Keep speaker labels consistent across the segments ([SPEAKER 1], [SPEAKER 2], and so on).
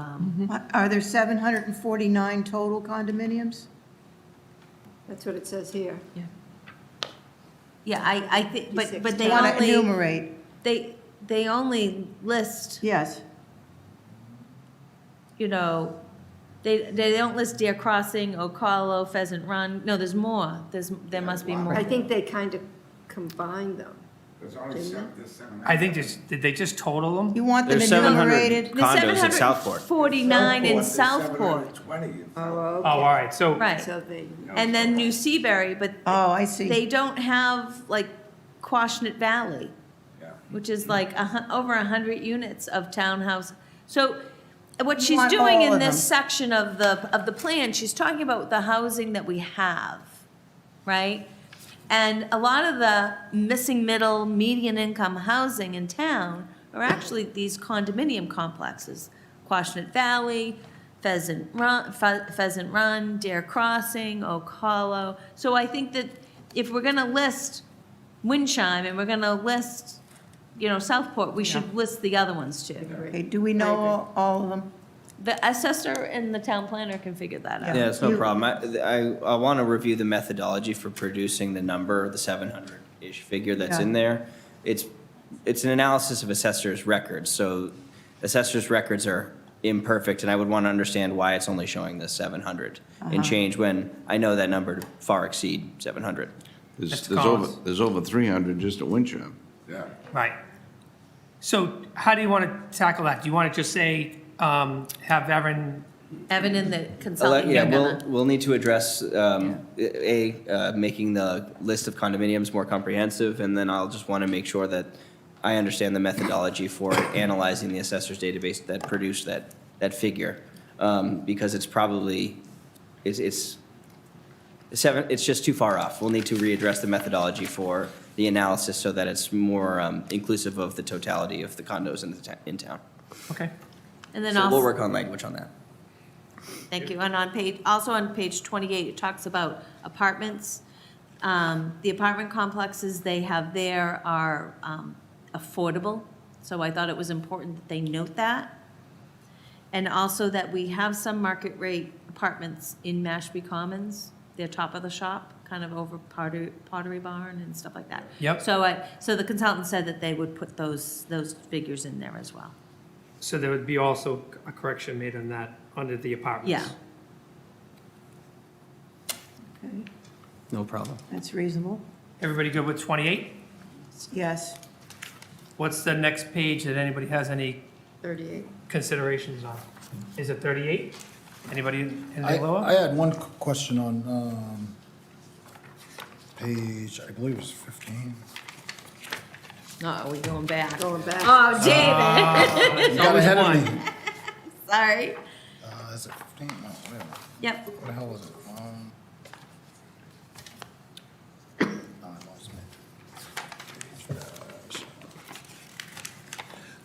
[SPEAKER 1] Um,
[SPEAKER 2] Are there 749 total condominiums?
[SPEAKER 3] That's what it says here.
[SPEAKER 1] Yeah, I, I think, but, but they
[SPEAKER 2] Want to
[SPEAKER 1] only,
[SPEAKER 2] enumerate,
[SPEAKER 1] they, they only list,
[SPEAKER 2] yes.
[SPEAKER 1] you know, they, they don't list Deer Crossing, Ocala, Pheasant Run, no, there's more, there's, there must be more.
[SPEAKER 3] I think they kind of combine them.
[SPEAKER 4] There's only seven, there's seven.
[SPEAKER 5] I think just, did they just total them?
[SPEAKER 2] You want them
[SPEAKER 6] There's 700.
[SPEAKER 2] enumerated?
[SPEAKER 1] The
[SPEAKER 6] Condos in Southport.
[SPEAKER 1] 749 in
[SPEAKER 4] there's
[SPEAKER 1] Southport,
[SPEAKER 4] 720 in
[SPEAKER 3] Oh,
[SPEAKER 4] Southport.
[SPEAKER 5] Oh,
[SPEAKER 3] okay.
[SPEAKER 5] all right, so,
[SPEAKER 1] right.
[SPEAKER 3] So they,
[SPEAKER 4] You know,
[SPEAKER 1] And then New Seaberry, but
[SPEAKER 2] Oh, I
[SPEAKER 1] they
[SPEAKER 2] see.
[SPEAKER 1] don't have like Quashnet Valley.
[SPEAKER 4] Yeah.
[SPEAKER 1] which is like a, hun- over 100 units of townhouse. So what
[SPEAKER 2] You
[SPEAKER 1] she's
[SPEAKER 2] want
[SPEAKER 1] doing
[SPEAKER 2] all
[SPEAKER 1] in
[SPEAKER 2] of
[SPEAKER 1] this
[SPEAKER 2] them.
[SPEAKER 1] section of the, of the plan, she's talking about the housing that we have, right? And a lot of the missing middle, median income housing in town are actually these condominium complexes. Quashnet Valley, Pheasant Run, Phe- Pheasant Run, Dare Crossing, Oak Hollow. So I think that if we're gonna list Windchime and we're gonna list, you know, Southport, we should list the other ones too.
[SPEAKER 2] Okay, do we know all- all of them?
[SPEAKER 1] The assessor and the town planner can figure that out.
[SPEAKER 2] Yeah.
[SPEAKER 6] Yeah, it's no
[SPEAKER 2] You-
[SPEAKER 6] problem. I, I, I want to review the methodology for producing the number, the seven hundred-ish figure that's
[SPEAKER 2] Yeah.
[SPEAKER 6] in there. It's, it's an analysis of assessor's records, so assessor's records are imperfect, and I would want to understand why it's only showing the seven hundred
[SPEAKER 2] Uh-huh.
[SPEAKER 6] and change when I know that number to far exceed seven hundred.
[SPEAKER 7] There's,
[SPEAKER 5] That's
[SPEAKER 7] there's over,
[SPEAKER 5] Collins.
[SPEAKER 7] there's over 300 just at Winchester.
[SPEAKER 4] Yeah.
[SPEAKER 5] right. So how do you want to tackle that? Do you want to just say, um, have Erin,
[SPEAKER 1] Evan and the consultant,
[SPEAKER 6] Yeah,
[SPEAKER 1] you're
[SPEAKER 6] we'll,
[SPEAKER 1] gonna,
[SPEAKER 6] we'll need to address, um, A, uh, making the list of condominiums more comprehensive, and then I'll just want to make sure that I understand the methodology for analyzing the assessor's database that produced that, that figure. Um, Because it's probably, it's, it's seven, it's just too far off. We'll need to readdress the methodology for the analysis so that it's more um, inclusive of the totality of the condos in the, ta- in town.
[SPEAKER 5] okay,
[SPEAKER 1] and then
[SPEAKER 6] So we'll
[SPEAKER 1] also,
[SPEAKER 6] work on language on that.
[SPEAKER 1] thank you, and on page, also on page 28, it talks about apartments. Um, The apartment complexes they have there are um, affordable, so I thought it was important that they note that. And also that we have some market rate apartments in Mashpee Commons. They're top of the shop, kind of over Potter- Pottery Barn and stuff like that.
[SPEAKER 5] Yep.
[SPEAKER 1] So I, so the consultant said that they would put those, those figures in there as well.
[SPEAKER 5] so there would be also a correction made on that, under the apartments.
[SPEAKER 1] Yeah.
[SPEAKER 2] Okay,
[SPEAKER 6] No problem.
[SPEAKER 2] That's reasonable.
[SPEAKER 5] Everybody good with 28?
[SPEAKER 2] Yes.
[SPEAKER 5] What's the next page that anybody has any
[SPEAKER 3] 38.
[SPEAKER 5] considerations on? Is it 38? Anybody,
[SPEAKER 8] I,
[SPEAKER 5] anything
[SPEAKER 8] I
[SPEAKER 5] lower?
[SPEAKER 8] had one q- question on, um, page, I believe it's fifteen.
[SPEAKER 1] No, we going back?
[SPEAKER 3] Going back.
[SPEAKER 1] Oh, David,
[SPEAKER 8] You got ahead of me.
[SPEAKER 1] sorry.
[SPEAKER 8] Uh, is it fifteen? No, wait a minute.
[SPEAKER 1] Yep,
[SPEAKER 8] What the hell is it? Um. no, I lost it.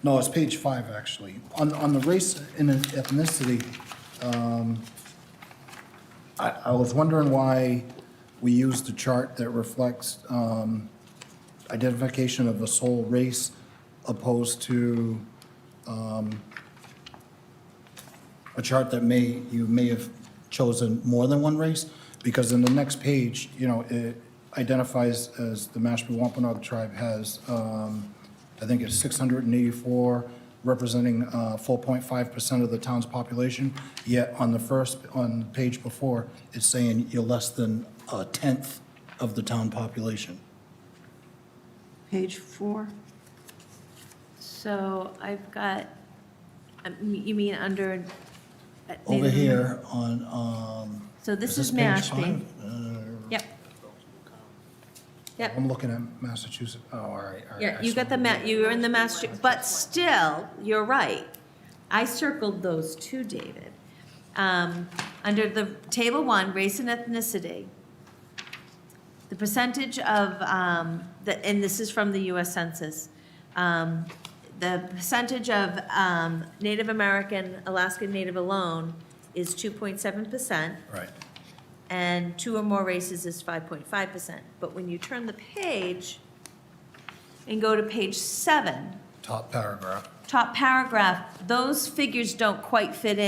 [SPEAKER 8] No, it's page five, actually. On, on the race and ethnicity, um, I, I was wondering why we used the chart that reflects, um, identification of the sole race opposed to, a chart that may, you may have chosen more than one race, because in the next page, you know, it identifies as the Mashpee Wampanoag tribe has, um, I think it's 684, representing uh, 4.5% of the town's population, yet on the first, on the page before, it's saying you're less than a tenth of the town population.
[SPEAKER 2] Page four.
[SPEAKER 1] so I've got, um, you mean under? uh,
[SPEAKER 8] Over
[SPEAKER 1] Native-
[SPEAKER 8] here on, um,
[SPEAKER 1] So this is
[SPEAKER 8] page
[SPEAKER 1] Mashpee.
[SPEAKER 8] five? Uh,
[SPEAKER 1] Yep. Yep,
[SPEAKER 8] I'm looking at Massachusetts, oh, all right, all right.
[SPEAKER 1] yeah,
[SPEAKER 8] I
[SPEAKER 1] you got
[SPEAKER 8] saw
[SPEAKER 1] the
[SPEAKER 8] it.
[SPEAKER 1] ma, you were in the master, but still, you're right. I circled those two, David. Um, under the table one, race and ethnicity, the percentage of, um, the, and this is from the US Census, um, the percentage of, um, Native American, Alaskan Native alone is two point seven percent
[SPEAKER 8] Right.
[SPEAKER 1] and two or more races is five point five percent. But when you turn the page and go to page seven,
[SPEAKER 8] top paragraph.
[SPEAKER 1] top paragraph, those figures don't quite fit in.